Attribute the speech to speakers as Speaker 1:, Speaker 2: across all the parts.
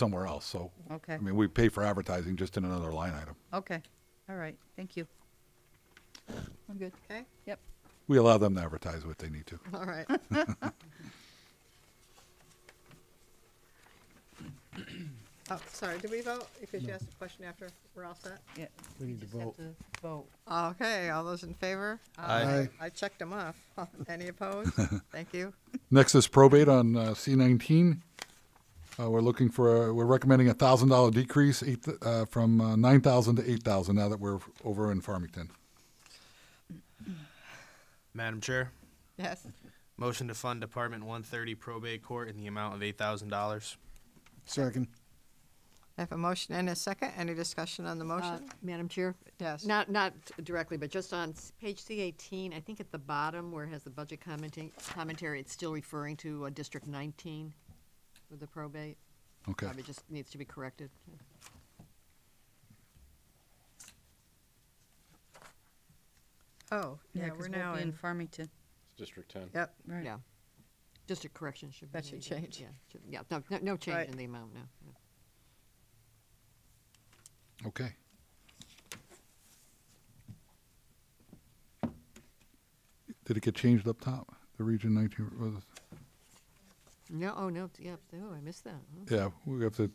Speaker 1: somewhere else, so.
Speaker 2: Okay.
Speaker 1: I mean, we pay for advertising just in another line item.
Speaker 2: Okay, all right, thank you.
Speaker 3: I'm good.
Speaker 2: Okay,
Speaker 3: Yep.
Speaker 1: We allow them to advertise what they need to.
Speaker 2: all right. Oh, sorry, did we vote? If you asked a question after, we're all set?
Speaker 3: Yeah.
Speaker 4: We need to
Speaker 3: just have
Speaker 4: vote.
Speaker 3: to Vote.
Speaker 2: Okay, all those in favor? Uh,
Speaker 4: Aye.
Speaker 2: I checked them off. Any opposed? Thank you.
Speaker 1: Next is probate on uh, C19. Uh, We're looking for, a- we're recommending a $1,000 decrease eight th- uh, from uh, 9,000 to 8,000 now that we're over in Farmington.
Speaker 5: Madam Chair,
Speaker 2: Yes,
Speaker 5: motion to fund Department 130 probate court in the amount of $8,000.
Speaker 4: Second.
Speaker 2: I have a motion and a second. Any discussion on the
Speaker 3: Uh,
Speaker 2: motion?
Speaker 3: Madam Chair?
Speaker 2: Yes.
Speaker 3: Not, not directly, but just on s- page C eighteen, I think at the bottom where it has the budget commenting, commentary, it's still referring to uh, District nineteen with the probate.
Speaker 1: Okay.
Speaker 3: Probably just needs to be corrected.
Speaker 2: Oh,
Speaker 6: Yeah,
Speaker 2: yeah,
Speaker 6: 'cause
Speaker 2: we're
Speaker 6: we'll
Speaker 2: now
Speaker 6: be
Speaker 2: in,
Speaker 6: Farmington,
Speaker 7: District ten.
Speaker 2: yep,
Speaker 6: right.
Speaker 3: Yeah. District correction should be.
Speaker 2: That should
Speaker 3: made,
Speaker 2: change.
Speaker 3: Yeah, should- yeah, no, no- no
Speaker 2: Right.
Speaker 3: change in the amount, no. no.
Speaker 1: Okay. Did it get changed up top? The Region 19, was-
Speaker 3: No, oh, no, yeah, oh, I missed that. huh.
Speaker 1: yeah, we have to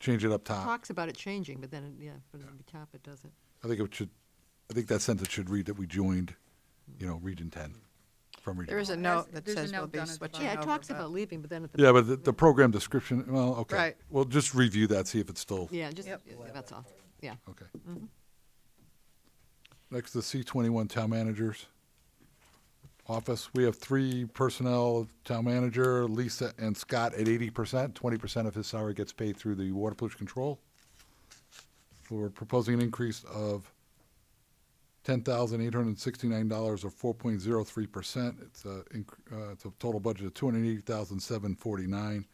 Speaker 1: change it up top.
Speaker 3: Talks about it changing, but then, it- yeah, but at the top it doesn't.
Speaker 1: I think it should, I think that sentence should read that we joined, you know, Region 10 from Region.
Speaker 2: there is a
Speaker 6: Well,
Speaker 2: note
Speaker 6: as-
Speaker 2: that
Speaker 6: there's a
Speaker 2: says we'll
Speaker 6: note
Speaker 2: be
Speaker 6: down at the
Speaker 2: switching
Speaker 6: bottom.
Speaker 3: Yeah, it
Speaker 2: over,
Speaker 3: talks
Speaker 2: but-
Speaker 3: about leaving, but then at the.
Speaker 1: Yeah, but the, the program description, well, okay.
Speaker 2: Right.
Speaker 1: We'll just review that, see if it's still,
Speaker 3: Yeah, just,
Speaker 2: Yep.
Speaker 3: yeah, that's all, yeah.
Speaker 1: okay. Next, the C twenty-one town managers office. We have three personnel, town manager, Lisa and Scott at eighty percent. Twenty percent of his salary gets paid through the water pollution control. We're proposing an increase of ten thousand eight hundred and sixty-nine dollars or four point zero three percent. It's a, inc- uh, it's a total budget of two hundred and eighty thousand seven forty-nine.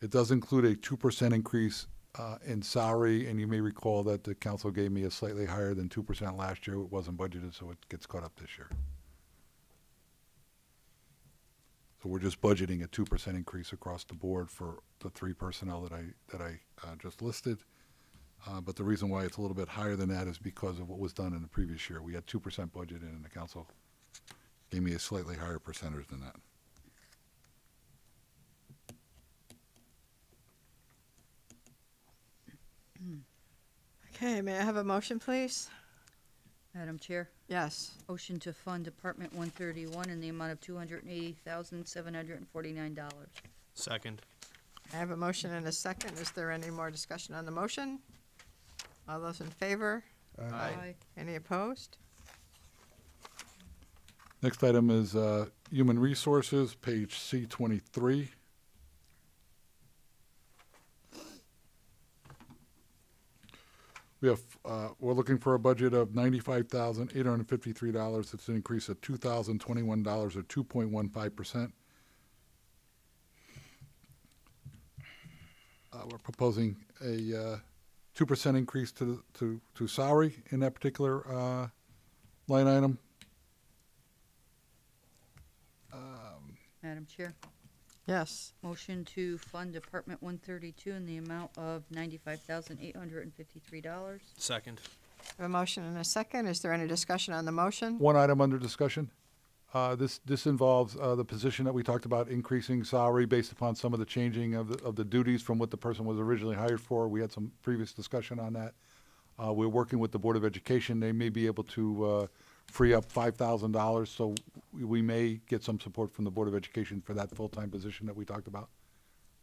Speaker 1: It does include a two percent increase uh, in salary, and you may recall that the council gave me a slightly higher than two percent last year. It wasn't budgeted, so it gets caught up this year. So we're just budgeting a two percent increase across the board for the three personnel that I, that I uh, just listed. Uh, But the reason why it's a little bit higher than that is because of what was done in the previous year. We had two percent budgeted, and the council gave me a slightly higher percentage than that.
Speaker 2: Okay, may I have a motion, please?
Speaker 6: Madam Chair,
Speaker 2: Yes.
Speaker 6: motion to fund Department 131 in the amount of $280,749.
Speaker 5: Second.
Speaker 2: I have a motion and a second. Is there any more discussion on the motion? All those in favor? Any opposed?
Speaker 1: Next item is uh, Human Resources, page C23. We have, uh, we're looking for a budget of $95,853. It's an increase of $2,021 or 2.15%. Uh, We're proposing a uh, 2% increase to, the- to, to salary in that particular uh, line item.
Speaker 6: Madam Chair,
Speaker 2: Yes.
Speaker 6: motion to fund Department 132 in the amount of $95,853.
Speaker 5: Second.
Speaker 2: I have a motion and a second. Is there any discussion on the motion?
Speaker 1: One item under discussion. Uh, This, this involves uh, the position that we talked about, increasing salary based upon some of the changing of, the- of the duties from what the person was originally hired for. We had some previous discussion on that. Uh, We're working with the Board of Education. They may be able to uh, free up $5,000, so we- we may get some support from the Board of Education for that full-time position that we talked about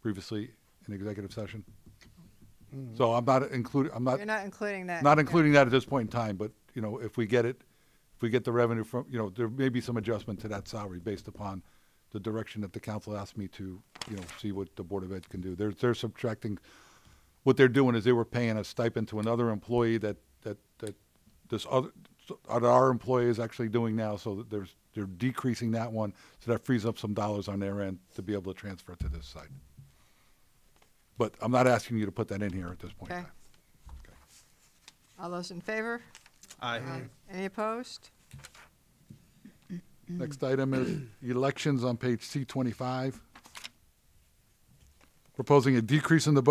Speaker 1: previously in executive session. So I'm not including, I'm not.
Speaker 2: You're not including that.
Speaker 1: Not including that at this point in time, but, you know, if we get it, if we get the revenue from, you know, there may be some adjustment to that salary based upon the direction that the council asked me to, you know, see what the Board of Ed can do. They're, they're subtracting, what they're doing is they were paying a stipend to another employee that, that, that this other, that our employee is actually doing now, so that there's, they're decreasing that one, so that frees up some dollars on their end to be able to transfer to this side. But I'm not asking you to put that in here at this point in
Speaker 2: Okay.
Speaker 1: time.
Speaker 2: All those in favor?
Speaker 5: Aye.
Speaker 2: Any opposed?
Speaker 1: Next item is elections on page C twenty-five. proposing a decrease in the budget